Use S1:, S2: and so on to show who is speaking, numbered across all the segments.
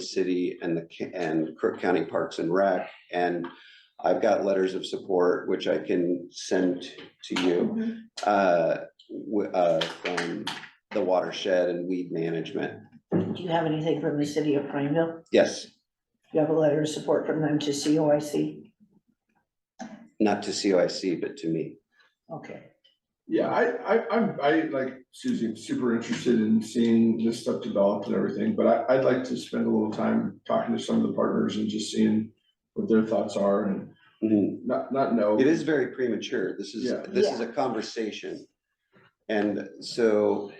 S1: City and the, ca- and Crook County Parks and Rec. And I've got letters of support, which I can send to you, uh, wi- uh, from the watershed and weed management.
S2: Do you have anything from the city of Prineville?
S1: Yes,
S2: Do you have a letter of support from them to COIC?
S1: not to COIC, but to me.
S2: Okay,
S3: Yeah, I, I, I'm, I, like Susie, I'm super interested in seeing this stuff developed and everything, but I, I'd like to spend a little time talking to some of the partners and just seeing what their thoughts are and
S1: Mhm.
S3: not, not know.
S1: It is very premature. This is,
S3: Yeah.
S1: this is a conversation. And so,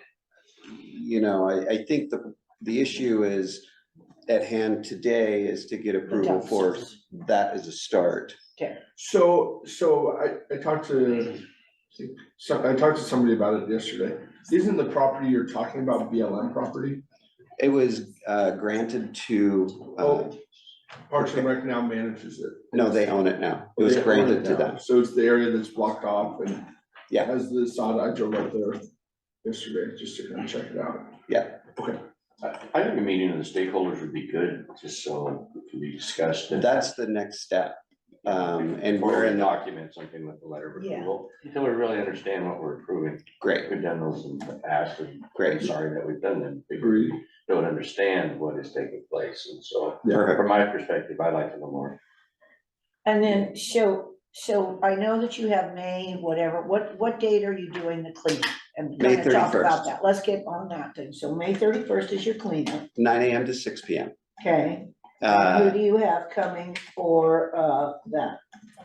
S1: you know, I, I think the, the issue is at hand today is to get approval for,
S2: dumpsters.
S1: that is a start.
S3: So, so I, I talked to, so I talked to somebody about it yesterday. Isn't the property you're talking about BLM property?
S1: It was uh, granted to, uh,
S3: Oh, Parks and Rec now manages it.
S1: no, they own it now. It was
S3: Oh, They own
S1: granted to
S3: now.
S1: them.
S3: So it's the area that's blocked off and.
S1: Yeah.
S3: As the sod, I drove up there yesterday just to kind of check it out.
S4: I I think a meeting of the stakeholders would be good, just so it can be discussed. and-
S1: That's the next step. Um, and we're
S4: Or
S1: in, the-
S4: Document something with the letter of
S2: Yeah.
S4: approval, until we really understand what we're approving.
S1: great,
S4: We've done those in the past, and I'm
S1: great,
S4: sorry that we've done them. We
S3: Agreed.
S4: Don't understand what is taking place, and so,
S1: perfect.
S4: from my perspective, I'd like to know more.
S2: And then, so, so I know that you have May, whatever, what, what date are you doing the cleanup? And
S1: May
S2: we're gonna talk
S1: 31st.
S2: about that, let's get on that thing, so May thirty-first is your cleanup,
S1: Nine AM to six PM.
S2: okay?
S1: Uh,
S2: Who do you have coming for, uh, that?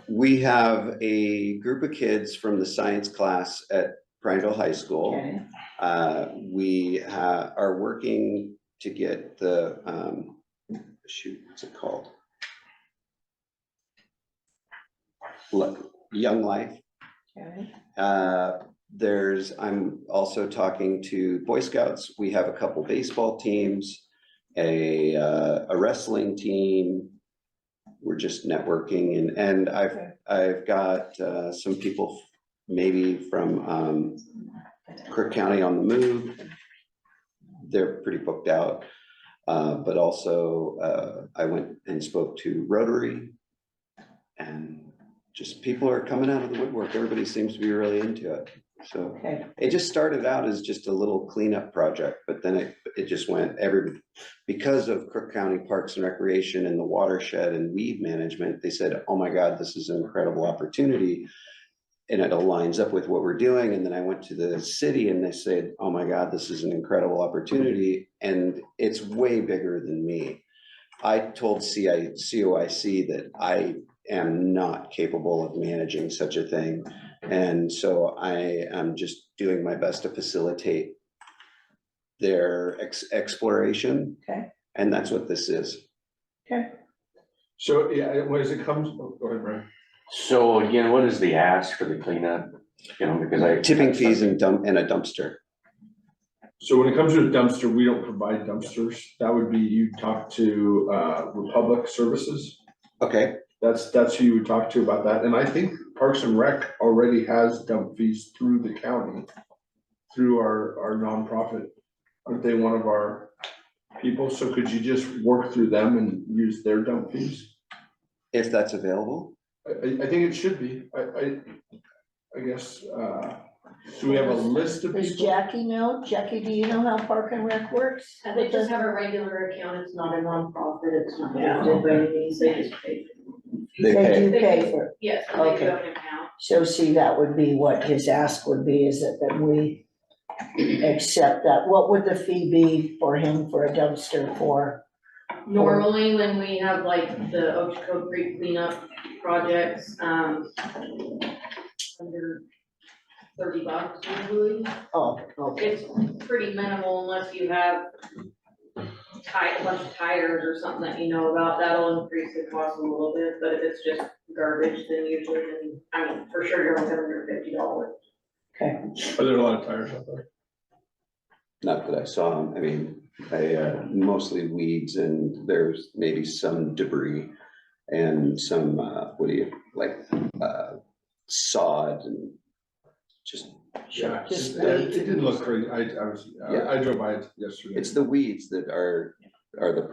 S1: We have a group of kids from the science class at Prineville High School.
S2: Okay,
S1: Uh, we ha- are working to get the, um, shoot, what's it called? Look, Young Life.
S2: okay,
S1: Uh, there's, I'm also talking to Boy Scouts. We have a couple baseball teams, a, uh, a wrestling team. We're just networking and, and I've,
S2: Okay.
S1: I've got, uh, some people maybe from, um, Crook County on the move. They're pretty booked out. Uh, but also, uh, I went and spoke to Rotary. And just people are coming out of the woodwork. Everybody seems to be really into it. So
S2: okay,
S1: it just started out as just a little cleanup project, but then it, it just went every, because of Crook County Parks and Recreation and the watershed and weed management, they said, oh my God, this is an incredible opportunity. And it aligns up with what we're doing. And then I went to the city and they said, oh my God, this is an incredible opportunity. And it's way bigger than me. I told CI, COIC that I am not capable of managing such a thing. And so I am just doing my best to facilitate their ex- exploration,
S2: okay.
S1: and that's what this is.
S3: So, yeah, when it comes, oh, go ahead, Brian.
S4: So again, what is the ask for the cleanup? You know, because I.
S1: Tipping fees and dump, and a dumpster.
S3: So when it comes to a dumpster, we don't provide dumpsters. That would be, you talk to, uh, Republic Services.
S1: Okay,
S3: That's, that's who you would talk to about that. And I think Parks and Rec already has dump fees through the county, through our, our nonprofit. Aren't they one of our people? So could you just work through them and use their dump fees?
S1: if that's available,
S3: I, I, I think it should be. I, I, I guess, uh, do we have a list of
S2: Does
S3: people?
S2: Jackie know? Jackie, do you know how Park and Rec works?
S5: Uh, They just have a regular account, it's not a nonprofit, it's not
S2: Yeah.
S5: funded by any means, they just pay.
S1: they pay.
S2: They do pay for it.
S5: Yes, they do
S2: Okay.
S5: have an account.
S2: So see, that would be what his ask would be, is that, that we accept that. What would the fee be for him for a dumpster for?
S5: Normally, when we have like the Ochoco Creek cleanup projects, um, under thirty bucks usually,
S2: Oh, okay,
S5: it's pretty minimal unless you have ti- a bunch of tires or something that you know about, that'll increase the cost a little bit, but if it's just garbage, then usually, then, I mean, for sure, you're only under fifty dollars.
S2: okay.
S3: Are there a lot of tires out there?
S1: Not that I saw them, I mean, I, uh, mostly weeds and there's maybe some debris and some, uh, what do you, like, uh, sod and just,
S3: Yeah,
S2: Just
S3: it- it didn't look great. I, I was,
S1: Yeah.
S3: I I drove by it yesterday.
S1: it's the weeds that are, are the